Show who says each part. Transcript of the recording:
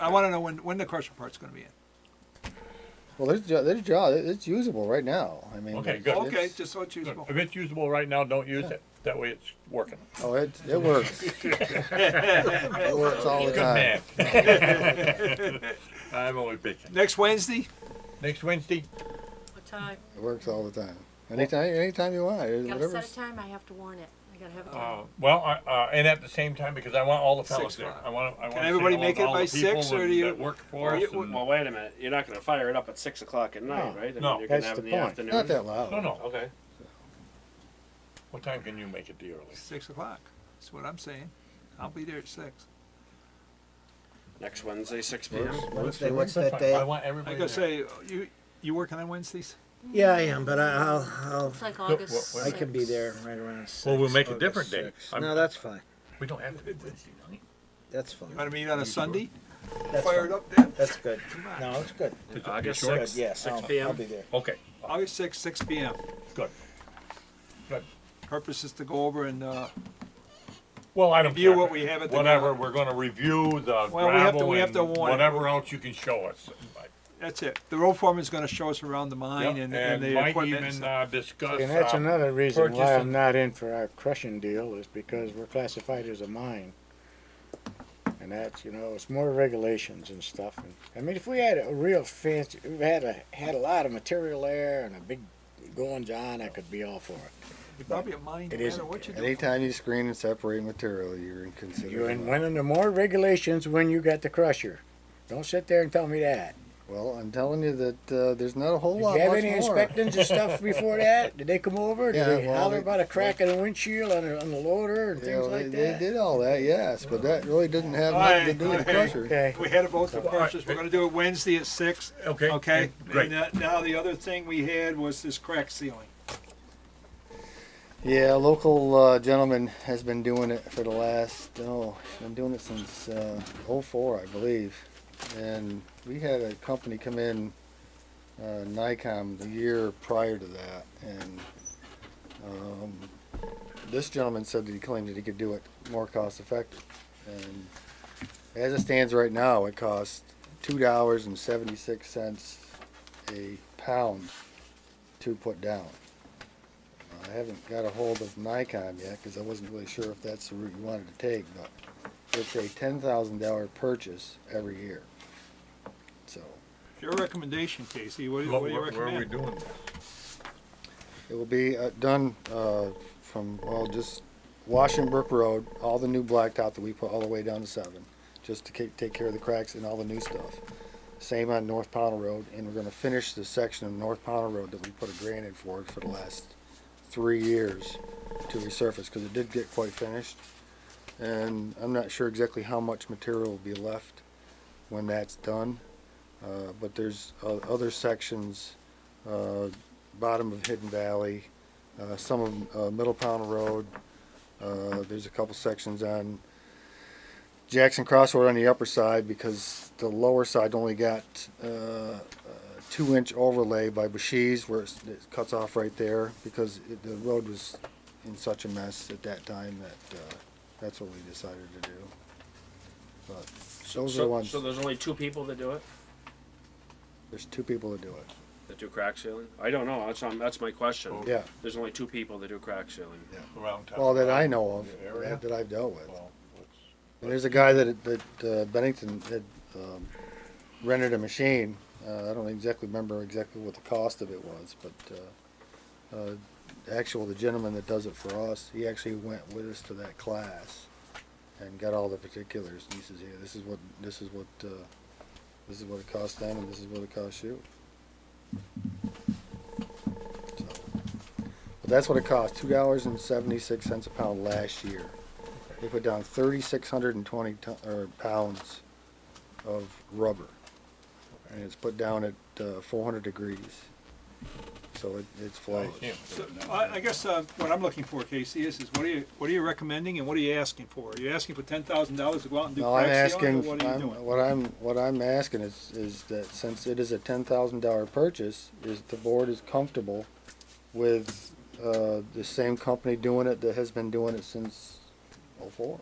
Speaker 1: I wanna know when, when the crusher part's gonna be in.
Speaker 2: Well, there's jo- there's jaw. It's usable right now. I mean.
Speaker 3: Okay,
Speaker 2: it's-
Speaker 3: good.
Speaker 1: Okay,
Speaker 2: it's-
Speaker 1: just so it's usable.
Speaker 3: If it's usable right now, don't use it. That way it's working.
Speaker 2: Oh, it it works. it works all the
Speaker 3: Good
Speaker 2: time.
Speaker 3: man. I'm only bitching.
Speaker 1: Next Wednesday,
Speaker 3: Next Wednesday,
Speaker 4: What time?
Speaker 2: It works all the time. Anytime, anytime you want.
Speaker 4: Gotta
Speaker 2: Whatever.
Speaker 4: set a time, I have to warn it, I gotta have a
Speaker 3: uh,
Speaker 4: time.
Speaker 3: well, I- uh, and at the same time, because I want all the fellows
Speaker 1: Six
Speaker 3: there.
Speaker 1: o'clock.
Speaker 3: I want, I want.
Speaker 1: everybody make it by six, or do you-
Speaker 3: Work for
Speaker 5: Well,
Speaker 3: us.
Speaker 5: you-
Speaker 3: and-
Speaker 5: well, wait a minute. You're not going to fire it up at six o'clock at night,
Speaker 2: No.
Speaker 5: right? I mean,
Speaker 3: No.
Speaker 5: you're going
Speaker 2: That's
Speaker 5: to have
Speaker 2: the
Speaker 5: it in the
Speaker 2: point.
Speaker 5: afternoon.
Speaker 2: Not that loud.
Speaker 3: No, no.
Speaker 5: Okay.
Speaker 3: What time can you make it the earliest?
Speaker 1: six o'clock, that's what I'm saying. I'll be there at six.
Speaker 5: Next Wednesday, six p.m.
Speaker 6: Wednesday, what's that
Speaker 3: I
Speaker 6: day?
Speaker 3: want
Speaker 1: I
Speaker 3: everybody
Speaker 1: gotta
Speaker 3: there.
Speaker 1: say, you, you working on Wednesdays?
Speaker 6: Yeah, I am, but I- I'll, I'll,
Speaker 4: It's like
Speaker 3: wha-
Speaker 4: August
Speaker 3: wha-
Speaker 6: I can be
Speaker 4: sixth.
Speaker 6: there right around six.
Speaker 3: Well, we'll make a different day. I'm-
Speaker 6: No, that's fine.
Speaker 3: We don't have to do Wednesday night.
Speaker 6: That's
Speaker 1: You wanna
Speaker 6: fine.
Speaker 1: meet on a Sunday?
Speaker 6: That's
Speaker 1: Fire it
Speaker 6: fine.
Speaker 1: up then?
Speaker 6: That's good. No, it's good.
Speaker 5: August
Speaker 3: sure?
Speaker 6: Good,
Speaker 5: sixth,
Speaker 6: yes.
Speaker 2: Oh,
Speaker 5: six
Speaker 6: I'll, I'll
Speaker 5: p.m.
Speaker 6: be there.
Speaker 3: Okay,
Speaker 1: August sixth, six P M.
Speaker 3: good. Good.
Speaker 1: Purpose is to go over and, uh,
Speaker 3: Well, I don't
Speaker 1: Review
Speaker 3: care.
Speaker 1: what we have at the
Speaker 3: Whatever,
Speaker 1: ground.
Speaker 3: we're gonna review the
Speaker 1: Well, we have to-
Speaker 3: gravel
Speaker 1: we have to
Speaker 3: and
Speaker 1: warn it.
Speaker 3: whatever else you can show us.
Speaker 1: that's it. The road foreman's gonna show us around the mine
Speaker 3: Yep,
Speaker 1: and, and the
Speaker 3: might
Speaker 1: equipment and
Speaker 3: even,
Speaker 1: stuff.
Speaker 3: uh, Discuss.
Speaker 7: And that's
Speaker 3: uh,
Speaker 7: another reason why
Speaker 3: purchasing-
Speaker 7: I'm not in for our crushing deal is because we're classified as a mine. And that's, you know, it's more regulations and stuff. And I mean, if we had a real fancy, we had a, had a lot of material there and a big goings on, I could be all for it.
Speaker 1: You're Probably a mine, no
Speaker 7: It
Speaker 1: matter
Speaker 7: isn't.
Speaker 1: what you do.
Speaker 2: Anytime you screen and separate material, you're in
Speaker 7: You're in,
Speaker 2: consideration.
Speaker 7: one of the more regulations when you got the crusher. Don't sit there and tell me that.
Speaker 2: Well, I'm telling you that uh, there's not a whole
Speaker 7: Did
Speaker 2: lot.
Speaker 7: you have
Speaker 2: much
Speaker 7: any
Speaker 2: more.
Speaker 7: inspections and stuff before that? Did they come over? Did
Speaker 2: Yeah,
Speaker 7: they
Speaker 2: well,
Speaker 7: holler
Speaker 2: they-
Speaker 7: about a crack in the windshield on, a, on the loader and
Speaker 2: You
Speaker 7: things
Speaker 2: know,
Speaker 7: like
Speaker 2: they,
Speaker 7: that?
Speaker 2: they did all that, yes, but that really didn't have
Speaker 1: Alright,
Speaker 2: nothing to do with
Speaker 1: okay.
Speaker 2: pressure.
Speaker 7: Okay.
Speaker 1: We had both the
Speaker 3: All right.
Speaker 1: parcels. We're gonna do it Wednesday at six,
Speaker 3: Okay.
Speaker 1: okay?
Speaker 3: Great.
Speaker 1: And that- now the other thing we had was this crack ceiling.
Speaker 2: Yeah, a local uh, gentleman has been doing it for the last oh, he's been doing it since uh, 04, I believe. And we had a company come in, uh, Nikon, the year prior to that, and um, this gentleman said that he claimed that he could do it more cost effective. And as it stands right now, it costs two dollars and seventy six cents a pound to put down. I haven't got a hold of Nikon yet because I wasn't really sure if that's the route you wanted to take, but it's a ten thousand dollar purchase every year. So
Speaker 1: Your recommendation, Casey, what do you-
Speaker 3: What-
Speaker 1: what do you
Speaker 3: what- Where are we
Speaker 1: recommend?
Speaker 3: doing?
Speaker 2: it will be uh, done uh, from well, just Washington Brook Road, all the new blacktop that we put all the way down to seven, just to ca- take care of the cracks and all the new stuff. Same on North Powell Road, and we're going to finish the section of North Powell Road that we put a grant in for for the last three years to resurface because it did get quite finished. And I'm not sure exactly how much material will be left when that's done. Uh, but there's uh, other sections, uh, bottom of Hidden Valley, uh, some of uh, Middle Pound Road. Uh, there's a couple sections on Jackson Crossroad on the upper side because the lower side only got uh, a two inch overlay by Bushes where it's, it cuts off right there because it, the road was in such a mess at that time that uh, that's what we decided to do. But those are the
Speaker 5: So,
Speaker 2: ones.
Speaker 5: so there's only two people that do it.
Speaker 2: There's two people that do it.
Speaker 5: That do crack sealing. I don't know. That's um, that's my question.
Speaker 2: Yeah.
Speaker 5: There's only two people that do crack sealing.
Speaker 3: Around town.
Speaker 2: Well, that I know of,
Speaker 3: Your area?
Speaker 2: that- that I've dealt with.
Speaker 3: Well, let's-
Speaker 2: And there's a guy that, that uh, Bennington had um, rented a machine. Uh, I don't exactly remember exactly what the cost of it was, but uh, uh, the actual, the gentleman that does it for us, he actually went with us to that class and got all the particulars. And he says, "Yeah, this is what this is what uh, this is what it costs them, and this is what it costs you." So, but that's what it cost: two dollars and seventy-six cents a pound last year. They put down thirty-six hundred and twenty ton, or pounds of rubber. And it's put down at, uh, four hundred degrees. So it, it's
Speaker 1: Oh,
Speaker 3: I
Speaker 2: flawless.
Speaker 3: can't do
Speaker 1: So,
Speaker 3: it.
Speaker 1: I, I guess, uh, what I'm looking for, Casey, is, is what are you, what are you recommending and what are you asking for? Are you asking for ten thousand dollars to go out and do
Speaker 2: No, I'm
Speaker 1: crack sealing, or
Speaker 2: asking,
Speaker 1: what are you
Speaker 2: I'm,
Speaker 1: doing?
Speaker 2: what I'm, what I'm asking is, is that since it is a ten thousand dollar purchase, is the board is comfortable with, uh, the same company doing it that has been doing it since oh-four.